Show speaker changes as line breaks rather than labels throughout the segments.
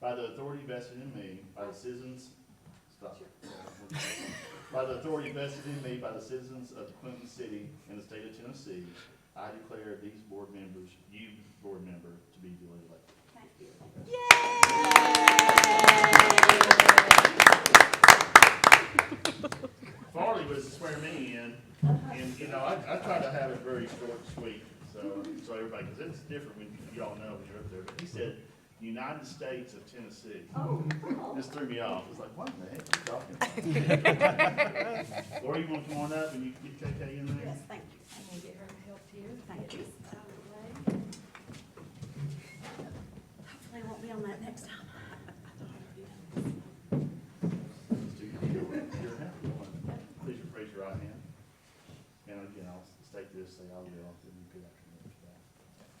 by the authority vested in me, by the citizens, stop. By the authority vested in me by the citizens of Clinton City and the state of Tennessee, I declare these board members, you board member, to be duly elected.
Thank you.
Farley was to swear me in, and, you know, I, I try to have it very short, and sweet, so, so everybody, because it's different when you- you all know when you're up there. But he said, United States of Tennessee.
Oh, oh,
This threw me off. It's like, what the heck are you talking about? Laura, you want to come on up and you can get KK in there?
yes, thank you.
I'm gonna get her help here.
Thank you. Hopefully I won't be on that next time.
Let's do your- your- your hand. Please raise your right hand. And again, I'll state this, say I will, then repeat after me.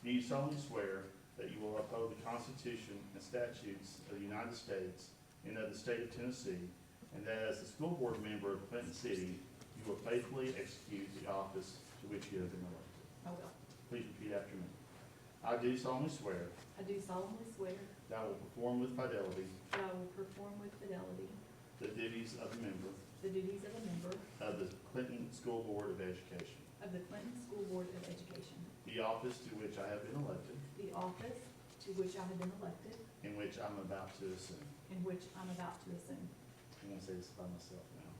Do you solemnly swear that you will uphold the Constitution and statutes of the United States and of the state of Tennessee, and that as a school board member of Clinton City, you will faithfully execute the office to which you have been elected?
I will.
Please repeat after me. I do solemnly swear
I do solemnly swear
that I will perform with fidelity
that I will perform with fidelity
the duties of a member
the duties of a member
of the Clinton School Board of Education,
of the Clinton School Board of Education,
the office to which I have been elected
the office to which I have been elected
and which I'm about to assume.
and which I'm about to assume,
I'm gonna say this by myself now.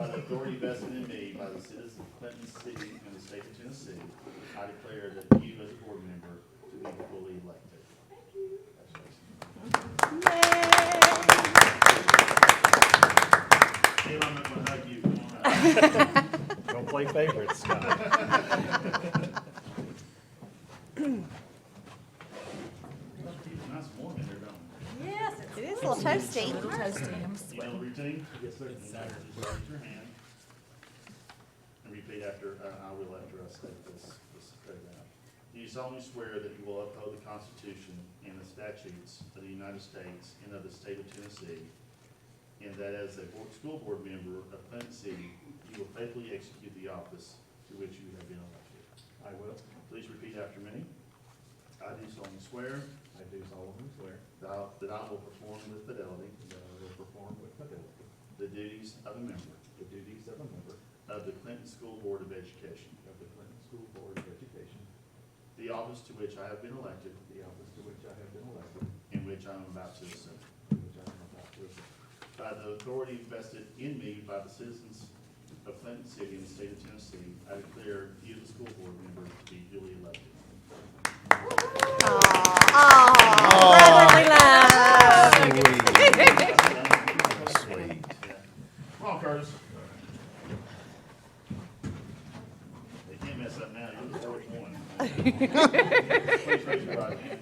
By the authority vested in me by the citizens of Clinton City and the state of Tennessee, I declare that you as a board member to be fully elected. Thank you. Congratulations. Tim, I'm not gonna hug you. Come on up.
Don't play favorites, Scott.
Nice warm in here, don't
Yes, it is a little toasty.
it? You know the routine? Yes, sir. Just raise your hand and repeat after, uh, I will after I say this, this statement. Do you solemnly swear that you will uphold the Constitution and the statutes of the United States and of the state of Tennessee, and that as a board, school board member of Clinton City, you will faithfully execute the office to which you have been elected? I will. Please repeat after me. I do solemnly swear
I do solemnly swear
that I- that I will perform with fidelity
that I will perform with fidelity
The duties of a member
the duties of a member
of the Clinton School Board of Education,
of the Clinton School Board of Education,
the office to which I have been elected
the office to which I have been elected,
and which I am about to assume,
and which I am about to assume,
by the authority vested in me by the citizens of Clinton City and the state of Tennessee, I declare you, the school board member, to be duly elected.
Sweet.
Come on, Curtis. They can't mess up now, you're the first one. Please raise your right hand.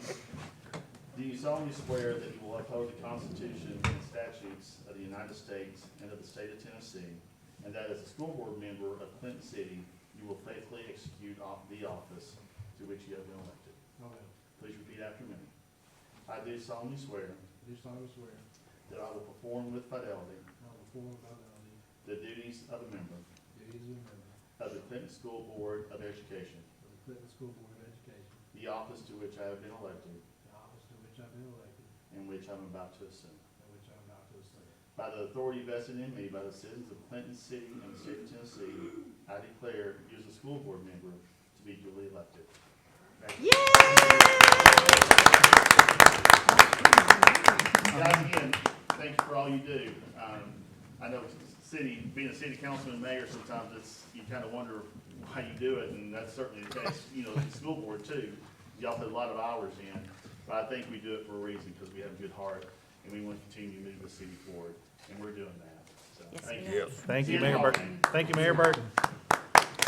Do you solemnly swear that you will uphold the Constitution and statutes of the United States and of the state of Tennessee, and that as a school board member of Clinton City, you will faithfully execute off the office to which you have been elected?
I will.
Please repeat after me. I do solemnly swear
I do solemnly swear that
that I will perform with fidelity
I will perform with fidelity
the duties of a member
the duties of a member
of the Clinton School Board of Education,
of the Clinton School Board of Education,
the office to which I have been elected
the office to which I've been elected,
and which I'm about to assume.
and which I am about to assume.
By the authority vested in me by the citizens of Clinton City and the state of Tennessee, I declare you as a school board member to be duly elected. Guys, again, thank you for all you do. Um, I know city, being a city councilman, mayor, sometimes it's, you kind of wonder why you do it, and that's certainly the case, you know, the school board too. Y'all put a lot of hours in, but I think we do it for a reason, because we have a good heart, and we want to continue to move the city forward, and we're doing that. So, thank you.
Thank you, Mayor Burton. Thank you, Mayor Burton.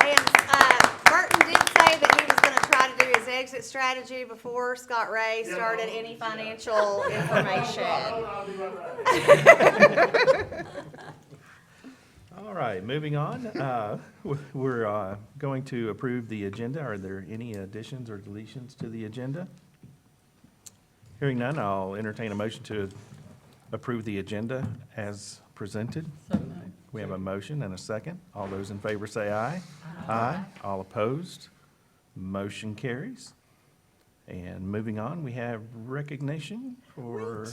And uh, Burton did say that he was going to try to do his exit strategy before Scott Ray
Yeah.
started any financial information.
I'll be right back.
All right, moving on. Uh, w- We're uh, going to approve the agenda. Are there any additions or deletions to the agenda? Hearing none, I'll entertain a motion to approve the agenda as presented. We have a motion and a second. All those in favor say aye. Aye. All opposed? Motion carries. And moving on, we have recognition for.